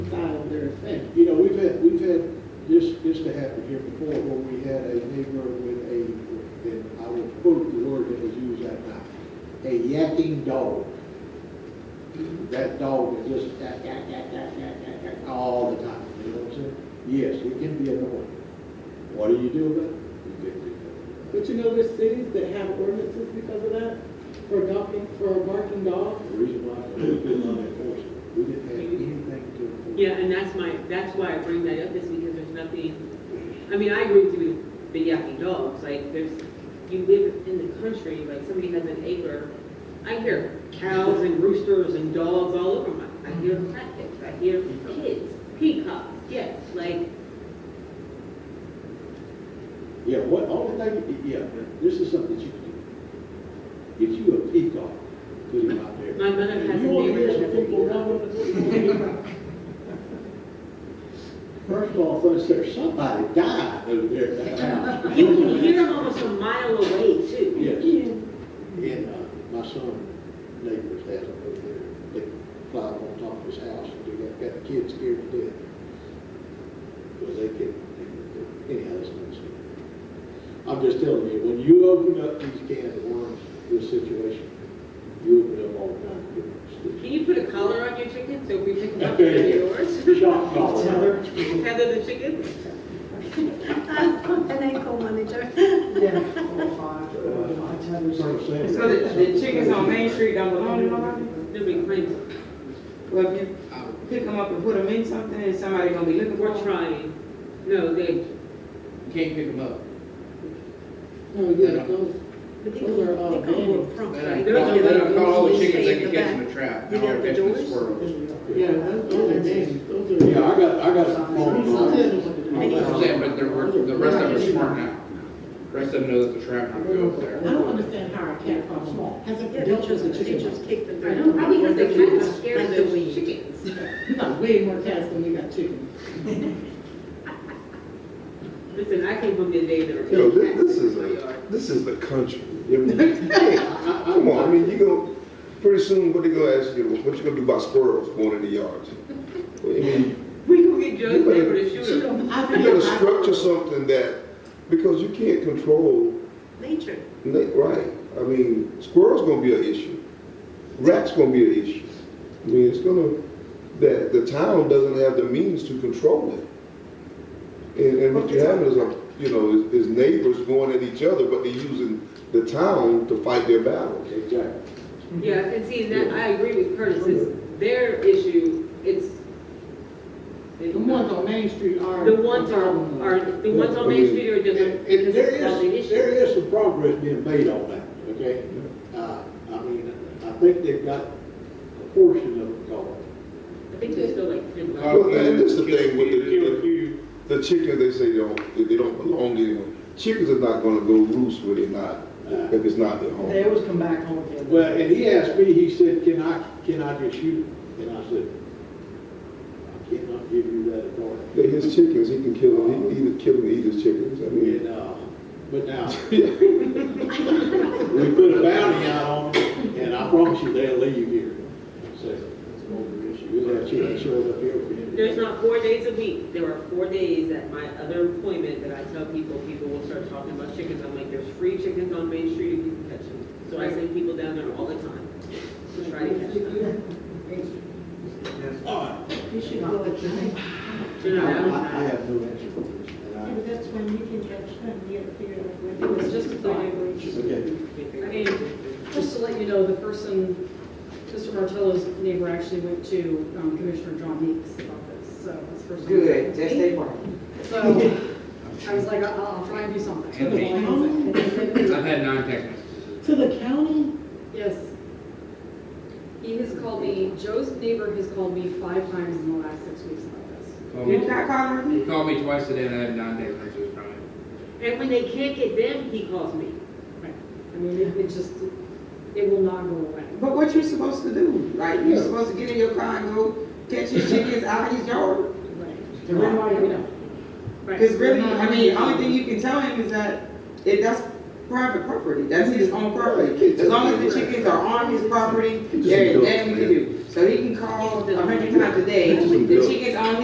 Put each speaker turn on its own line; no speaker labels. here. And, you know, we've had, we've had this, this to happen here before where we had a neighbor with a, and I will quote the word that was used that night, a yakking dog. That dog is just yak, yak, yak, yak, yak, yak, yak, all the time, you know what I'm saying? Yes, it can be annoying. What do you do about it? You can't do nothing.
But you know, there's cities that have ordinances because of that, for dumping, for barking dogs.
The reason why we didn't enforce it, we didn't have anything to enforce.
Yeah, and that's my, that's why I bring that up, is because there's nothing, I mean, I agree with you with the yucky dogs, like, there's, you live in the country, like, somebody has an acre, I hear cows and roosters and dogs all over my, I hear crickets, I hear kids, peacocks, yes, like,
Yeah, what, only thing, yeah, this is something that you can do. Get you a peacock, put him out there.
My mother has
And
a
you wanna hear
neighbor that
some
has a
people
peacock.
run with it? First of all, first there, somebody died over there at that house.
you can hear them almost a mile away, too.
Yes. And, uh, my son, neighbors has them over there, they fly up on top of his house and do that, got the kids scared to death. Because they can, they can, do it. anyhow, that's another story. I'm just telling you, when you open up these cans of worms, this situation, you open up all kinds of different
Can you put a collar on your chicken, so if we pick them up,
Okay.
they're yours?
stuff. Shock collar.
Tether the chickens?
An ankle manager.
Yeah, four or five, four or five times.
That's what I'm saying.
So the, the chickens on Main Street don't belong to nobody?
Nobody claims them,
Well, if you pick them up and put them in something, and somebody gonna be looking for
we're
them?
trying, no, they,
You can't pick them up.
No, Oh, yeah, those,
But they
Those are all
come, they come
dandy.
more prompt.
Then I,
They're not gonna
then I call all the
usually
chickens, I
stay in
can catch
the
them a trap,
You
now
got
I'm
the
catching the
doors?
squirrels.
yeah, those those are dangerous, those are.
Yeah, I got, I got some phone
Tell
calls.
them what to do.
I need
That's what I'm saying, but the, re- the rest of them are smart now. Rest of them know that the trap, will go up
I
there.
don't understand how a cat farm small has a
Yeah, they
dealt with
just,
a
they
chicken.
just kick them.
I know.
probably because they kind of scare
Like the
the
weed.
chickens.
You got way more cats than you got chickens.
Listen, I came home the day there were.
Yo, this,
cats
this
in
is,
my yard.
a- this is the country. I mean, Come on, I mean, you go, pretty soon, what they gonna ask you, what you gonna do about squirrels going in the yards? I mean,
We go get Joe's
You better-
neighbor to shoot them.
I
you
feel
gotta
like-
structure something that, because you can't control,
Nature.
na- right? I mean, squirrels gonna be an issue, rats gonna be an issue. I mean, it's gonna, that, the town doesn't have the means to control it. And, and what you have is, a you know, is is neighbors going at each other, but they're using the town to fight their battles.
Exactly.
Yeah, and see, and that, I agree with Curtis, it's their issue, it's.
The ones on Main Street are.
The ones are, are, the ones on Main Street are
And, and there
different. because
is,
it's
there
causing issues.
is some progress being made on that, okay? Uh, I mean, I think they've got a portion of it gone.
I think there's still like ten left.
Well, and that's the thing with
If
the,
you-
the the chickens, they say they don't, they- they don't belong to anyone. Chickens are not gonna go roost where they're not, if it's not their
They
home.
always come back home again.
Well, and he asked me, he said, can I, can I just shoot it? And I said, I cannot give you that authority.
They're his chickens, he can kill them, he can either kill them, or eat his chickens, I mean.
And, uh, but now, we put a bounty out on them, and I promise you they'll leave here. So, it's an older issue, we'll have children showing up here. for him.
There's not four days a week, there are four days at my other employment that I tell people, people will start talking about chickens, I'm like, there's free chickens on Main Street, if you can catch them. So I send people down there all the time to try to catch them.
All right,
You should go at night.
You know,
I
that was
I
not-
have no answer for this. and I-
that's when you can catch them, you have to figure out.
It was just a thought.
Okay.
Just to let you know, the person, Mr. Martello's neighbor actually went to um, Commissioner John Meeks about this, so that's first.
Good, that's their problem.
So, I was like, I'll, I'll try and do something.
And me.
That's all I can
I've
say.
had nine text messages.
To the county?
Yes. He has called me, Joe's neighbor has called me five times in the last six weeks about this.
Called
You
me-
not calling me?
Called me twice today and I had nine text messages from him.
And when they can't get them, he calls me.
I mean, it it just, it will not go away.
But what you supposed to do? Like, you supposed to get in your car and go catch his chickens out of his yard?
The red light, you know.
Because really, I mean, the only thing you can tell him is that it, that's private property, that's his own property. As long as the chickens are on his property, there is nothing to do. So he can call a hundred times a day, the chickens on